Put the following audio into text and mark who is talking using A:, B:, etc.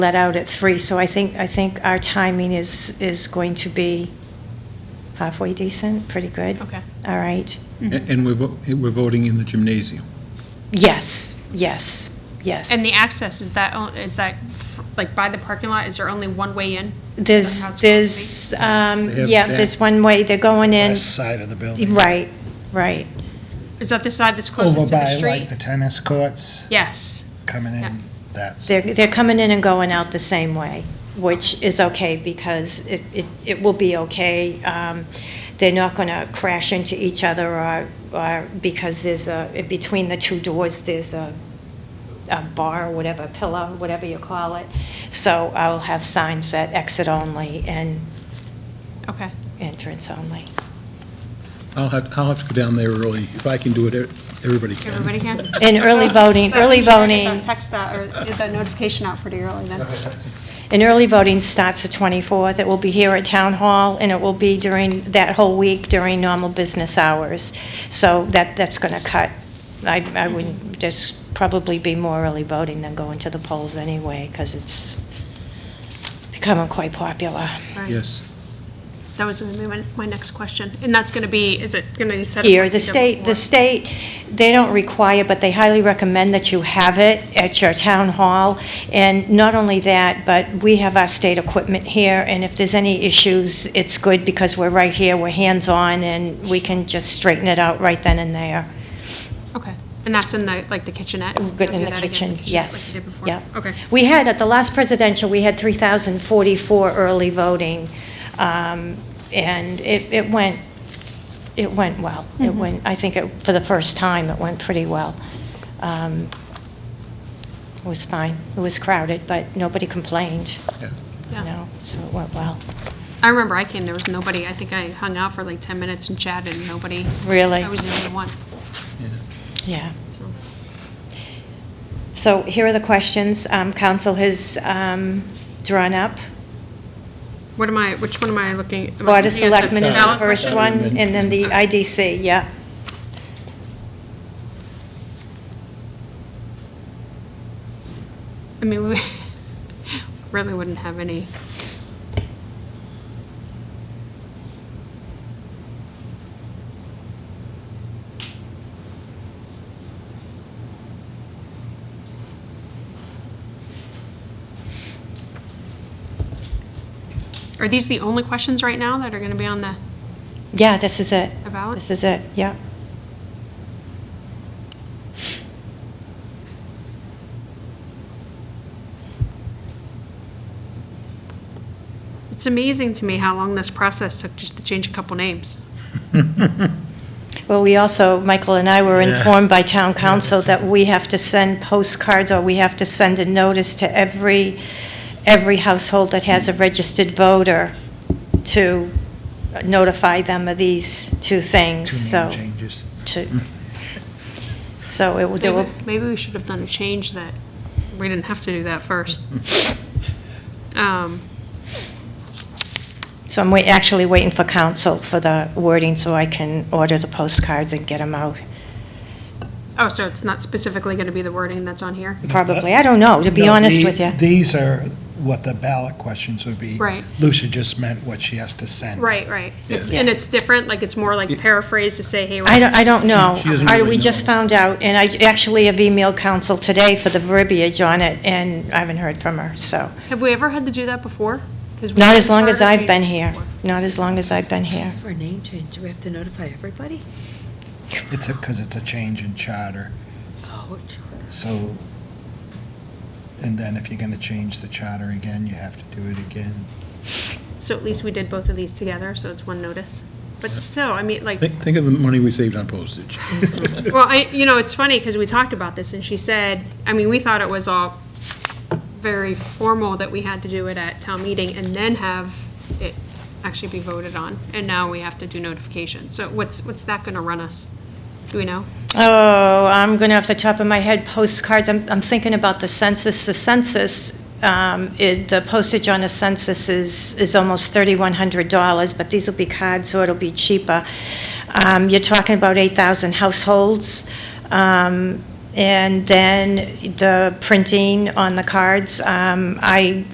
A: let out at three, so I think, I think our timing is, is going to be halfway decent, pretty good.
B: Okay.
A: All right.
B: Mhm.
C: And we're, vo- we're voting in the gymnasium.
A: Yes, yes, yes.
B: And the access, is that, on- is that, f- like, by the parking lot, is there only one way in? Is that
A: There's,
B: how it's going to be?
A: there's, um,
C: They have
A: yeah,
C: that.
A: there's one way, they're going in,
D: west side of the building.
A: right, right.
B: Is that the side that's
D: Over
B: closest to
D: by
B: the
D: like
B: street?
D: the tennis courts
B: Yes,
D: coming
B: Yeah.
D: in, that's,
A: They're, they're coming in and going out the same way, which is okay because it, it, it will be okay. Um, They're not going to crash into each other or, or because there's a, in between the two doors, there's a, a bar, or whatever, pillow, whatever you call it. So I'll have signs that exit only and
B: okay.
A: entrance only.
C: I'll have, I'll have to go down there early. If I can do it, everybody can.
B: Everybody Oh, can?
A: And early voting,
E: But
A: early
E: we should get
A: voting,
E: the Text that, or get the notification out pretty early then.
A: and early voting starts the 24th. It will be here at Town Hall, and it will be during, that whole week during normal business hours. So that, that's going to cut, I, I wouldn't, there's probably be more early voting than going to the polls anyway, because it's becoming quite popular.
B: Right.
C: Yes.
B: That was going to be my, my next question. And that's going to be, is it going to be set up?
A: Here,
B: like
A: the
B: did
A: state, the
B: before?
A: state, they don't require, but they highly recommend that you have it at your town hall. And not only that, but we have our state equipment here, and if there's any issues, it's good because we're right here, we're hands-on, and we can just straighten it out right then and there.
B: Okay. And that's in the, like, the kitchenette?
A: We're Good
B: They'll
A: in
B: do
A: the
B: that again
A: kitchen,
B: like you
A: yes.
B: did before?
A: Yeah.
B: Okay.
A: We had, at the last presidential, we had 3,044 early voting, um, and it it went, it went well. It went, I think, it- for the first time, it went pretty well. Um, It was fine. It was crowded, but nobody complained,
C: Yeah.
A: you
B: Yeah.
A: know, so it went well.
B: I remember I came, there was nobody. I think I hung out for like 10 minutes and chatted, and nobody.
A: Really?
B: I was the only one,
C: yeah.
A: Yeah.
B: so.
A: So here are the questions um, council has um, drawn up.
B: What am I, which one am I looking? am I
A: Board of
B: looking at
A: Selectmen is the
B: ballot
A: first
B: question?
A: one, and then the IDC, yeah.
B: I mean, we really wouldn't have any. Are these the only questions right now that are going to be on the
A: Yeah, this is it.
B: the ballot?
A: This is it, yeah.
B: It's amazing to me how long this process took just to change a couple names.
A: Well, we also, Michael and I were
D: Yeah.
A: informed by town council
D: Yes.
A: that we have to send postcards, or we have to send a notice to every, every household that has a registered voter to notify them of these two things,
D: two
A: so.
D: name changes.
A: to- So it will do, a-
B: Maybe- Maybe we should have done a change that, we didn't have to do that first. Um,
A: so I'm wait, actually waiting for council for the wording, so I can order the postcards and get them out.
B: Oh, so it's not specifically going to be the wording that's on here?
A: Probably, I don't know, to be
D: No,
A: honest
D: the-
A: with you.
D: These are what the ballot questions would be.
B: Right.
D: Lucia just meant what she has to send.
B: Right, right. It's-
A: Yeah.
B: And it's different, like, it's more like paraphrased to say, hey,
A: I
B: we're
A: don't, I don't know.
C: She doesn't
A: I-
C: really
A: We
C: know.
A: just found out, and I actually have emailed council today for the verbiage on it, and I haven't heard from her, so.
B: have we ever had to do that before? 'Cause we
A: Not as
B: haven't
A: long as
B: heard of
A: I've been
B: changes
A: here,
B: before.
A: not as long as I've been here.
F: Just for a name change, do we have to notify everybody?
D: It's a, because it's a change in charter,
F: Oh, sure.
D: so, and then if you're going to change the charter again, you have to do it again.
B: So at least we did both of these together, so it's one notice. But still, I mean, like,
C: Think, think of the money we saved on postage.
B: Well, I, you know, it's funny because we talked about this and she said, I mean, we thought it was all very formal that we had to do it at town meeting and then have it actually be voted on. And now we have to do notification. So what's, what's that going to run us? Do we know?
A: Oh, I'm going to, off the top of my head, postcards, I'm, I'm thinking about the census. The census, um, it, the postage on a census is, is almost $3,100, but these will be cards, so it'll be cheaper. Um, You're talking about 8,000 households. Um, And then the printing on the cards, um, I